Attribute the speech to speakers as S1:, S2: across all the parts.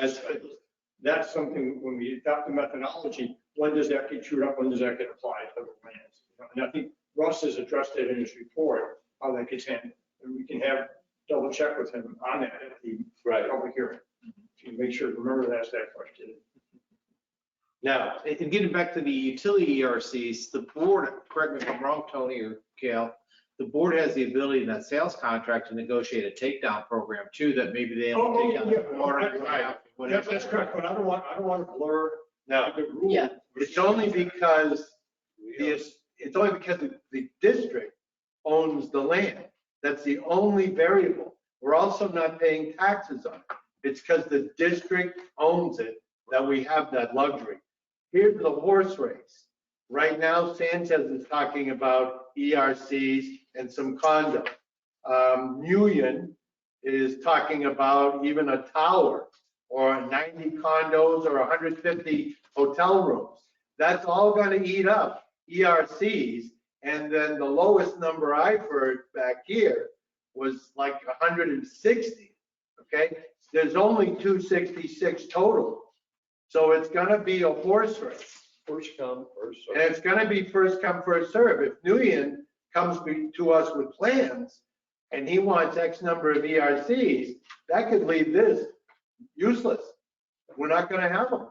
S1: That's, that's something, when we adopt the methodology, when does that get chewed up, when does that get applied to the plans? And I think Russ has addressed it in his report, how that gets handled, and we can have, double check with him on that at the
S2: Right.
S1: public hearing. To make sure, remember to ask that question.
S2: Now, and getting back to the utility ERCs, the board, correct me if I'm wrong, Tony or Gail, the board has the ability in that sales contract to negotiate a takedown program too, that maybe they
S1: Oh,
S2: only
S1: oh,
S2: take down
S1: yeah,
S2: the water,
S1: that's right.
S2: ground,
S1: That's,
S2: whatever.
S1: that's correct, but I don't want, I don't want to blur
S2: No,
S1: the rule.
S3: Yeah.
S2: it's only because it's, it's only because the- the district owns the land. That's the only variable. We're also not paying taxes on it. It's because the district owns it that we have that luxury. Here's the horse race. Right now, Sanchez is talking about ERCs and some condo. Um, Nguyen is talking about even a tower or 90 condos or 150 hotel rooms. That's all going to eat up ERCs. And then the lowest number I've heard back here was like 160, okay? There's only 266 total. So it's going to be a horse race.
S4: First come, first
S2: And it's gonna be first come, first serve. If Nguyen comes be- to us with plans and he wants X number of ERCs, that could leave this useless. We're not gonna have them.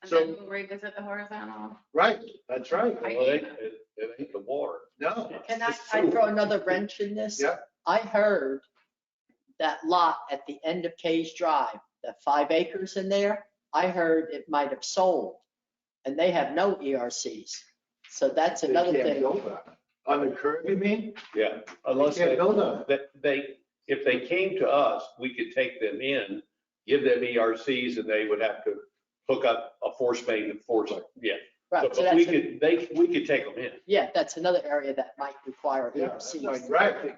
S3: And
S2: So-
S3: then we'll revisit the horizontal.
S2: Right, that's right.
S3: I-
S4: Well, it, it it ain't the water.
S2: No,
S5: Can I,
S4: It's
S5: I
S4: sewer.
S5: throw another wrench in this?
S2: Yeah.
S5: I heard that lot at the end of Kay's Drive, that five acres in there, I heard it might have sold. And they have no ERCs. So that's another thing.
S2: on the curve, you mean?
S4: Yeah,
S2: You
S4: unless
S2: can't
S4: they,
S2: build on it.
S4: that they, if they came to us, we could take them in, give them ERCs and they would have to hook up a force main and force, yeah. So,
S5: Right, so
S4: But we
S5: that's, a-
S4: could, they, we could take them in.
S5: yeah, that's another area that might require E
S2: Yeah,
S5: ERCs.
S2: Right,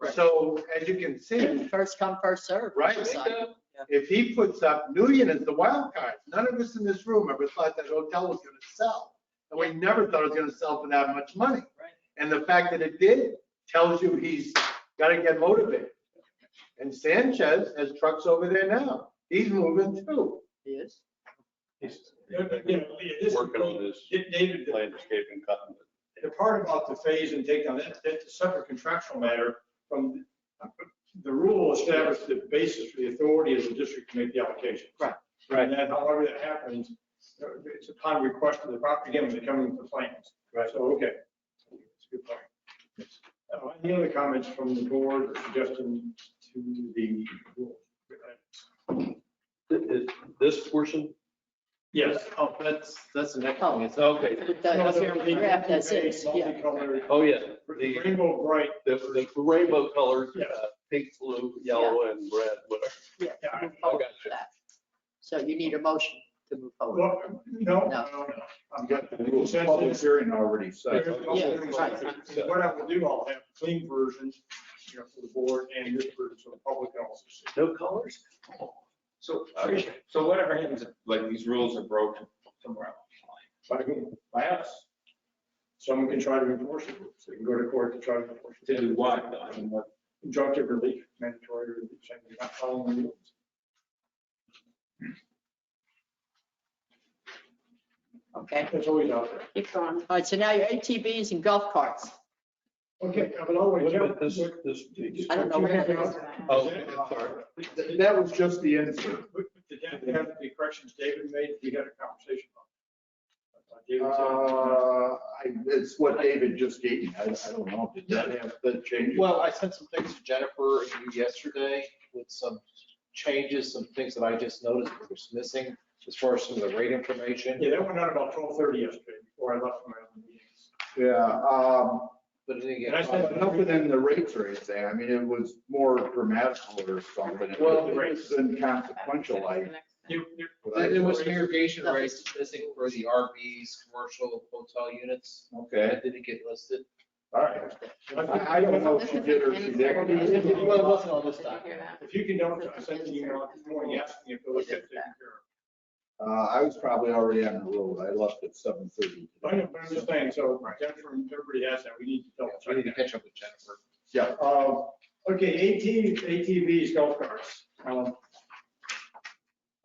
S2: right. So as you can see,
S5: First come, first served.
S2: Right.
S5: it's like-
S2: if he puts up, Nguyen is the wild card. None of us in this room ever thought that hotel was gonna sell. And we never thought it was gonna sell for that much money.
S5: Right.
S2: And the fact that it did tells you he's gotta get motivated. And Sanchez has trucks over there now. He's moving too.
S5: Yes.
S4: Working on this
S1: David, the-
S4: landscaping cutting.
S1: the part about the phase and takedown, that, that's a separate contractual matter from, the rule established the basis for the authority of the district to make the allocation.
S5: Right.
S2: Right.
S1: And then however that happens, uh, it's upon request of the property, again, when they come into the plans.
S2: Right.
S1: So, okay. That's a good point. Uh, Any other comments from the board or suggestions to the rule?
S4: Is this portion?
S1: Yes.
S2: Oh, that's, that's the next one. It's okay.
S5: But the Draft as is, yeah.
S1: Multicolored,
S4: Oh, yeah. The,
S1: Rainbow bright,
S4: the the rainbow colors,
S1: Yeah.
S4: uh, pink, blue, yellow and red, whatever.
S5: Yeah.
S1: Yeah, I-
S5: move forward
S4: I got
S5: with that. So you need a motion to move forward.
S1: Well, no, no, no. I've got the consensus.
S6: hearing already
S4: set.
S5: Yeah,
S4: right.
S1: What I will do, I'll have clean versions, you know, for the board and this version for the public also.
S4: No colors?
S6: So,
S4: Uh,
S6: so whatever happens, if, like these rules are broken somewhere else.
S1: By whom? By us. Someone can try to enforce it, so we can go to court to try to enforce it.
S6: To do what? though? I mean, what-
S1: Injunctive relief, mandatory relief, saying you're not following the rules.
S5: Okay.
S1: That's always out there.
S3: Keep going.
S5: All right, so now your ATVs and golf carts.
S1: Okay, I will always.
S4: But this, this.
S5: I don't know where that is.
S4: Oh, sorry.
S6: That was just the insert.
S1: Did that have the corrections David made? We had a conversation about. it. I thought David said-
S6: Uh, I- It's what David just gave me. I I don't know. Did that have, that change?
S7: Well, I sent some things to Jennifer and you yesterday with some changes, some things that I just noticed that was missing as far as some of the rate information.
S1: Yeah, that went out about twelve thirty yesterday before I left for my other meetings.
S6: Yeah, um,
S7: But then again,
S1: And I said-
S6: but nothing in the rates or anything. I mean, it was more grammatical or something. It
S7: Well,
S1: the
S6: was inconsequential, I.
S1: You- you-
S7: there was some irrigation rates missing for the RVs, commercial hotel units.
S6: Okay,
S7: That didn't get listed.
S6: all right. I I don't know if she did or she
S3: Well,
S6: didn't.
S3: it
S7: wasn't on this
S3: Did you hear that?
S1: If you can, don't, I sent an email this morning asking if those get taken care
S6: Uh, I was probably already on the road. I left at seven thirty.
S1: of. I know, but I'm just saying, so Jennifer, and everybody has that, we need to double
S7: I
S1: check
S7: need to
S1: that.
S7: catch up with Jennifer.
S6: Yeah,
S1: Uh, Okay, AT ATVs, golf carts. Um,